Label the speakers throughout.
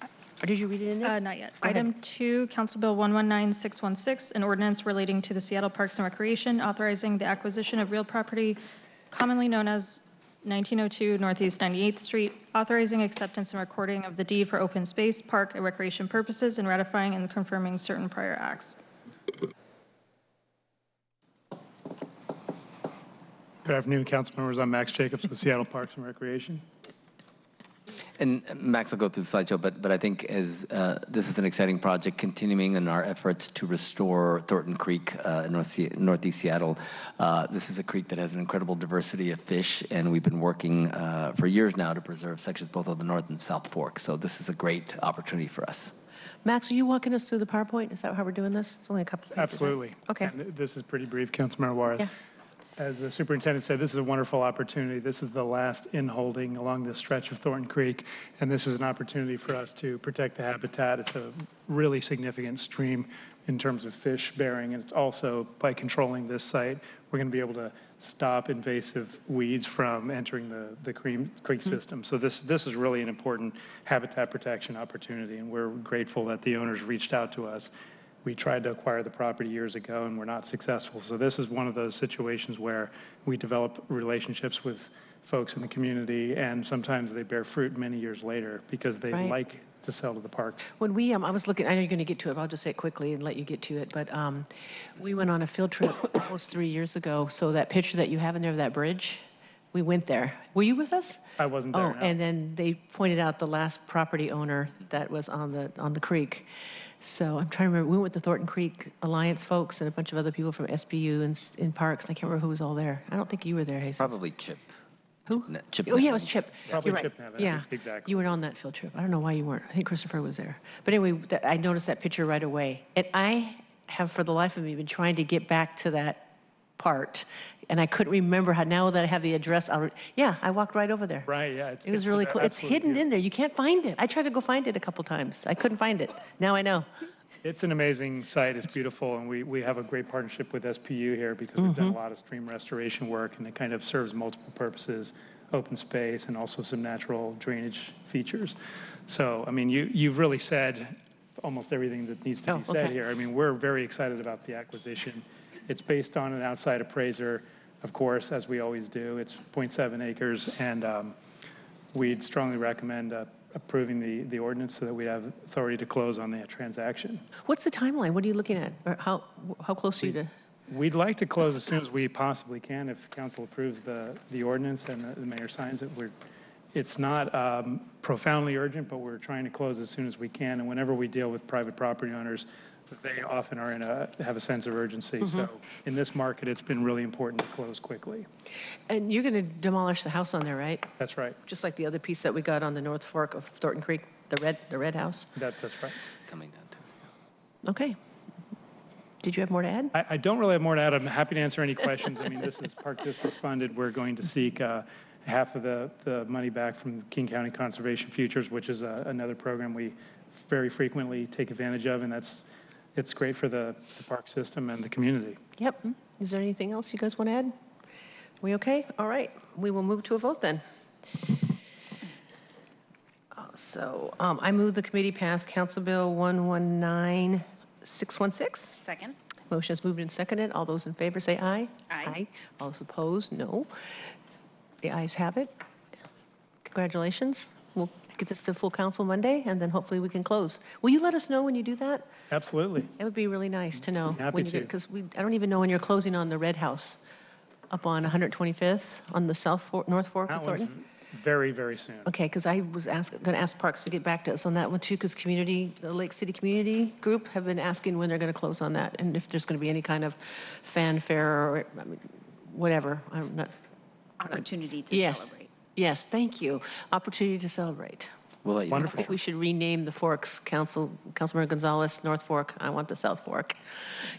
Speaker 1: Or did you read it in there?
Speaker 2: Uh, Not yet.
Speaker 1: Go ahead.
Speaker 2: Item two, Council Bill 119616, an ordinance relating to the Seattle Parks and Recreation, authorizing the acquisition of real property commonly known as 1902 Northeast 98th Street, authorizing acceptance and recording of the deed for open space, park, and recreation purposes, and ratifying and confirming certain prior acts.
Speaker 3: Good afternoon, council members. I'm Max Jacobs with Seattle Parks and Recreation.
Speaker 4: And uh, Max will go through the slideshow, but, but I think as, uh, this is an exciting project continuing in our efforts to restore Thornton Creek uh, in North Se- northeast Seattle. Uh, this is a creek that has an incredible diversity of fish, and we've been working uh, for years now to preserve sections both of the North and South Fork. So this is a great opportunity for us.
Speaker 1: Max, are you walking us through the PowerPoint? Is that how we're doing this? It's only a couple pages. right?
Speaker 3: Absolutely.
Speaker 1: Okay.
Speaker 3: And th- This is pretty brief, Councilmember Juarez.
Speaker 1: Yeah.
Speaker 3: As the superintendent said, this is a wonderful opportunity. This is the last in-holding along this stretch of Thornton Creek, and this is an opportunity for us to protect the habitat. It's a really significant stream in terms of fish bearing, and it's also, by controlling this site, we're going to be able to stop invasive weeds from entering the, the cream,
Speaker 1: Mm-hmm.
Speaker 3: creek system. So this, this is really an important habitat protection opportunity, and we're grateful that the owners reached out to us we tried to acquire the property years ago and were not successful. So this is one of those situations where we develop relationships with folks in the community, and sometimes they bear fruit many years later because they
Speaker 1: Right.
Speaker 3: like to sell to the park.
Speaker 1: When we, um, I was looking, I know you're going to get to it, but I'll just say it quickly and let you get to it. But um, we went on a field trip almost three years ago. So that picture that you have in there of that bridge, we went there. Were you with us?
Speaker 3: I wasn't
Speaker 1: Oh,
Speaker 3: there. no.
Speaker 1: and then they pointed out the last property owner that was on the, on the creek. So I'm trying to remember, we went with the Thornton Creek Alliance folks and a bunch of other people from SBU and, s- and Parks. I can't remember who was all there. I don't think you were there, Jesus.
Speaker 4: Probably Chip.
Speaker 1: Who?
Speaker 4: Ne- Chip
Speaker 1: Oh, yeah, it was
Speaker 4: Nevins.
Speaker 1: Chip.
Speaker 3: Probably
Speaker 1: You're right.
Speaker 3: Chip Nevins,
Speaker 1: Yeah.
Speaker 3: exactly.
Speaker 1: You were on that field trip. I don't know why you weren't. I think Christopher was there. But anyway, that, I noticed that picture right away. And I have, for the life of me, been trying to get back to that part. And I couldn't remember how, now that I have the address, I'll, re- yeah, I walked right over there.
Speaker 3: Right, yeah. it's-
Speaker 1: It was
Speaker 3: it's
Speaker 1: really cool. It's
Speaker 3: absolutely
Speaker 1: hidden
Speaker 3: beautiful.
Speaker 1: in there. You can't find it. I tried to go find it a couple times. I couldn't find it. Now I know.
Speaker 3: It's an amazing site. It's beautiful, and we, we have a great partnership with SPU here because we've
Speaker 1: Mm-hmm.
Speaker 3: done a lot of stream restoration work, and it kind of serves multiple purposes, open space, and also some natural drainage features. So, I mean, you you've really said almost everything that needs to
Speaker 1: Oh,
Speaker 3: be said
Speaker 1: okay.
Speaker 3: here. I mean, we're very excited about the acquisition. It's based on an outside appraiser, of course, as we always do. It's 0.7 acres, and um, we'd strongly recommend. Uh, approving the, the ordinance so that we have authority to close on the transaction.
Speaker 1: What's the timeline? What are you looking at? Or how, how close are you to?
Speaker 3: We'd like to close as soon as we possibly can, if council approves the, the ordinance and the- the mayor signs it. We're, it's not um, profoundly urgent, but we're trying to close as soon as we can. And whenever we deal with private property owners, they often are in a, have a sense of urgency. So in this market, it's been really important to close quickly.
Speaker 1: And you're going to demolish the house on there, right?
Speaker 3: That's right.
Speaker 1: Just like the other piece that we got on the North Fork of Thornton Creek, the red, the red house?
Speaker 3: That, that's right.
Speaker 4: Coming down to it.
Speaker 1: Okay. Did you have more to add?
Speaker 3: I, I don't really have more to add. I'm happy to answer any questions. I mean, this is Park District funded. We're going to seek uh, half of the, the money back from King County Conservation Futures, which is uh, another program we very frequently take advantage of, and that's, it's great for the, the park system and the community.
Speaker 1: Yep. Is there anything else you guys want to add? We okay? All right. We will move to a vote then. Uh, So um, I move the committee pass Council Bill 119616.
Speaker 5: Second.
Speaker 1: Motion is moved and seconded. All those in favor say aye.
Speaker 5: Aye.
Speaker 1: All those opposed, no. The ayes have it. Congratulations. We'll get this to full council Monday, and then hopefully we can close. Will you let us know when you do that?
Speaker 3: Absolutely.
Speaker 1: It would be really nice to know.
Speaker 3: Happy to.
Speaker 1: Because we, I don't even know when you're closing on the Red House up on 125th on the South Fork, North Fork of
Speaker 3: That one's
Speaker 1: Thornton.
Speaker 3: very, very soon.
Speaker 1: Okay, because I was ask, going to ask Parks to get back to us on that one too, because community, the Lake City Community Group have been asking when they're going to close on that and if there's going to be any kind of fanfare or, I mean, whatever. I'm not,
Speaker 5: Opportunity to
Speaker 1: yes.
Speaker 5: celebrate.
Speaker 1: Yes, thank you. Opportunity to celebrate.
Speaker 4: We'll let you know for
Speaker 3: Wonderful.
Speaker 1: We should rename the forks, Council, Councilmember Gonzalez, North Fork, I want the South Fork.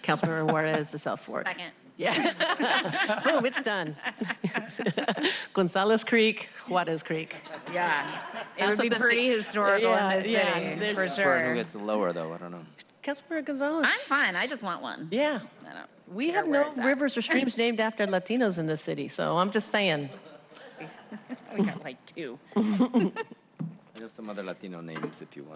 Speaker 1: Councilmember Juarez, the South Fork.
Speaker 5: Second.
Speaker 1: Yeah. Boom, it's done. Gonzalez Creek, Juarez Creek.
Speaker 5: Yeah. It
Speaker 1: That's
Speaker 5: would be
Speaker 1: what the ci-
Speaker 5: pretty historical in
Speaker 1: Yeah,
Speaker 5: this
Speaker 1: yeah,
Speaker 5: city,
Speaker 1: there's-
Speaker 5: for
Speaker 4: Burn, who
Speaker 5: sure.
Speaker 4: gets the lower, though? I don't know.
Speaker 1: Councilmember Gonzalez.
Speaker 5: I'm fine. I just want one.
Speaker 1: Yeah.
Speaker 5: I don't
Speaker 1: We
Speaker 5: care
Speaker 1: have
Speaker 5: where
Speaker 1: no
Speaker 5: it's at.
Speaker 1: rivers or streams named after Latinos in this city, so I'm just saying.
Speaker 5: We got like two.
Speaker 4: I know some other Latino names if you want.